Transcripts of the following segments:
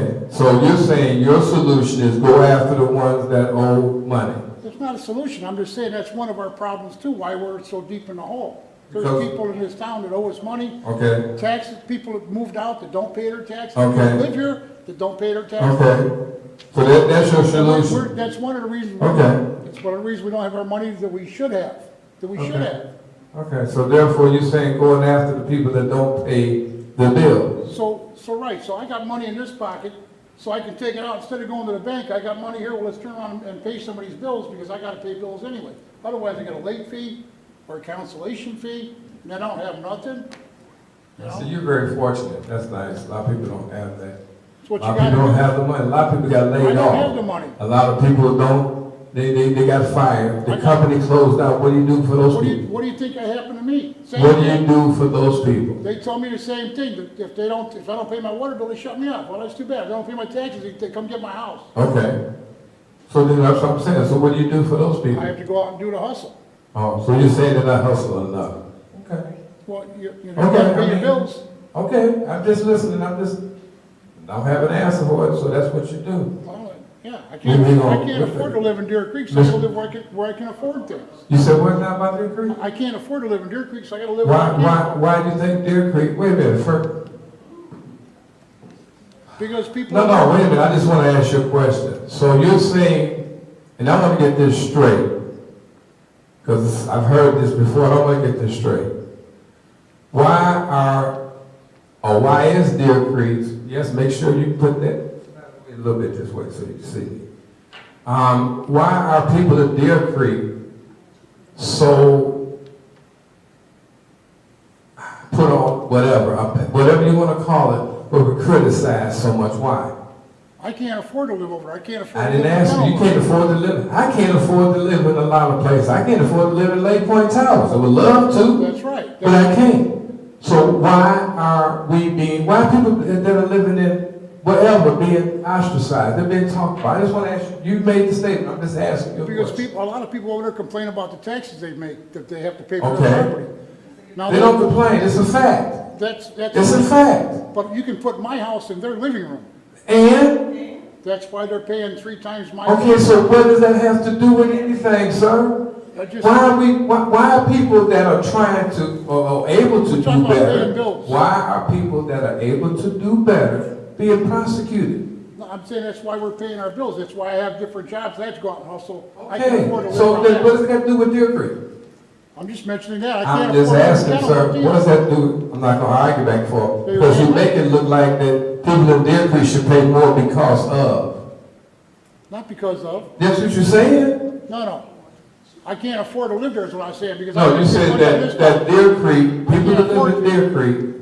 Okay, so you're saying your solution is go after the ones that owe money? That's not a solution, I'm just saying that's one of our problems too, why we're so deep in the hole. There's Because- people in this town that owe us money, Okay, taxes, people that moved out that don't pay their taxes, people Okay. that live here that don't pay their taxes. okay. So that, that's your And we're- we're- solution? That's one of the reasons. Okay. That's one of the reasons we don't have our money that we should have, that we should Okay. have. Okay, so therefore you're saying going after the people that don't pay the bill? So, so right, so I got money in this pocket, so I can take it out, instead of going to the bank, I got money here, well, let's turn around and pay somebody's bills, because I gotta pay bills anyway. Otherwise, I get a late fee, or a cancellation fee, and I don't have nothing, you So know? you're very fortunate, that's nice, a lot of people don't have that. It's A what you lot of people don't gotta have the money, a lot of people got do. I laid don't have the off. money. A lot of people don't, they, they, they got fired, I the got- company closed down, what do you do for those What do you, people? what do you think happened to me? Same What do thing. you do for those people? They told me the same thing, that if they don't, if I don't pay my water bill, they shut me up. Well, that's too bad. If I don't pay my taxes, they- they come get my house. Okay. So then that's what I'm saying, so what do you do for those I people? have to go out and do the hustle. Oh, so you're saying they're not hustling enough? Okay. Well, you, you know, you Okay, gotta I pay your mean- bills. Okay, I'm just listening, I'm just, I don't have an answer for it, so that's what you do. Well, Yeah, I can't, Moving I on. can't afford to live in Deer Creek, so I Listen. go live where I can, where I can afford things. You said what now about Deer Creek? I can't afford to live in Deer Creek, so I gotta live where Why, I why, why do you think Deer Creek, wait a minute, first, can. Because people. no, no, wait a minute, I just wanna ask you a question. So you're saying, and I wanna get this straight, cause I've heard this before, and I wanna get this straight. Why are, or why is Deer Creek, yes, make sure you put that a little bit this way so you can see me. Um, why are people at Deer Creek so put on whatever, up- whatever you wanna call it, but we criticize so much, why? I can't afford to live over, there. I can't afford. I to didn't live in ask you, you Alamo. can't afford to live, I can't afford to live in a lot of places, I can't afford to live in Lake Point Towers, I would love to. That's right. But I can't. So why are we being, why are people that are living in whatever being ostracized, they're being talked about? I just want to ask you, you made the statement, I'm just asking you a Because question. people, a lot of people over there complain about the taxes they make, that they have to pay for Okay. their property. Now, They don't complain, it's a fact. that's, that's. It's a fact. But you can put my house in their living room. And, That's why they're paying three times my. okay, so what does that have to do with anything, sir? I just- Why are we, why, why are people that are trying to, or or able to We're do talking about better? paying bills. Why are people that are able to do better being prosecuted? No, I'm saying that's why we're paying our bills. That's why I have different jobs. I have to go out and hustle. I can Okay, afford to so live then on what that. does it got to do with Deer Creek? I'm just mentioning that. I I'm can't just afford. asking, I sir, can't what does afford- that do? I'm not gonna argue back and forth, because you make it look like that people in Deer Creek should pay more because of. Not because of, That's what you're saying? no, no. I can't afford to live there is what I'm saying because. I No, you make said money in that, this that town. Deer Creek, people that live in Deer Creek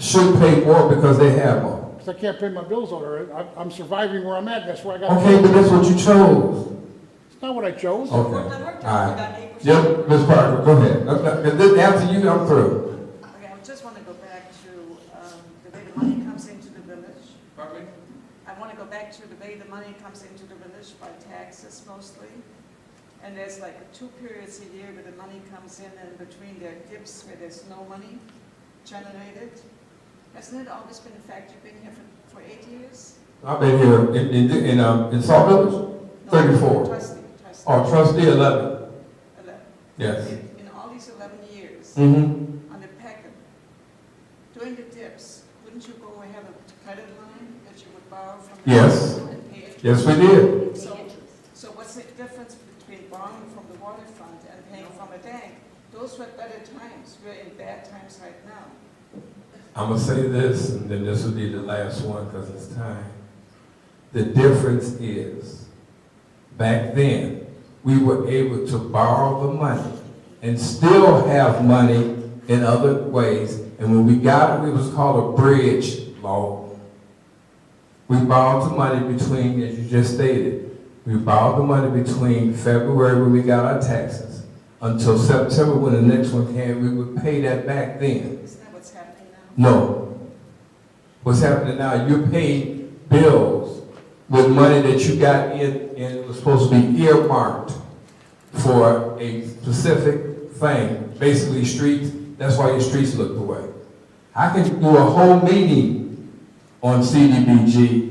should pay more because they have more. 'Cause I can't pay my bills over there. I- I'm surviving where I'm at. That's where I got. Okay, but that's what you chose. It's not what I chose. Okay, all right. Yep, Ms. Parker, go ahead. That's not- and then After you, I'm through. Okay, I just want to go back to um, the way the money comes into the village. Pardon me? I want to go back to the way the money comes into the village by taxes mostly. And there's like two periods a year where the money comes in and between there are dips where there's no money generated. Hasn't it always been a fact? You've been here for, for eight years? I've been here in, in, in, um, in Salt Village, No, thirty-four. Trustee, trustee. Oh, trustee eleven, Eleven. yes. In in all these eleven years, Mm-hmm. on the packet, during the dips, wouldn't you go ahead and credit line that you would borrow from? the Yes. water and pay it? Yes, we did. So, so what's the difference between borrowing from the water fund and paying from a bank? Those were better times, we're in bad times right now. I'm gonna say this, and then this will be the last one, because it's time. The difference is, back then, we were able to borrow the money and still have money in other ways, and when we got it, it was called a bridge loan. We borrowed the money between, as you just stated, we borrowed the money between February when we got our taxes until September when the next one came, we would pay that back then. Isn't that what's happening now? No. What's happening now, you're paying bills with money that you got in, and it was supposed to be earmarked for a specific thing, basically streets, that's why your streets look the way. I can do a whole meeting on CDBG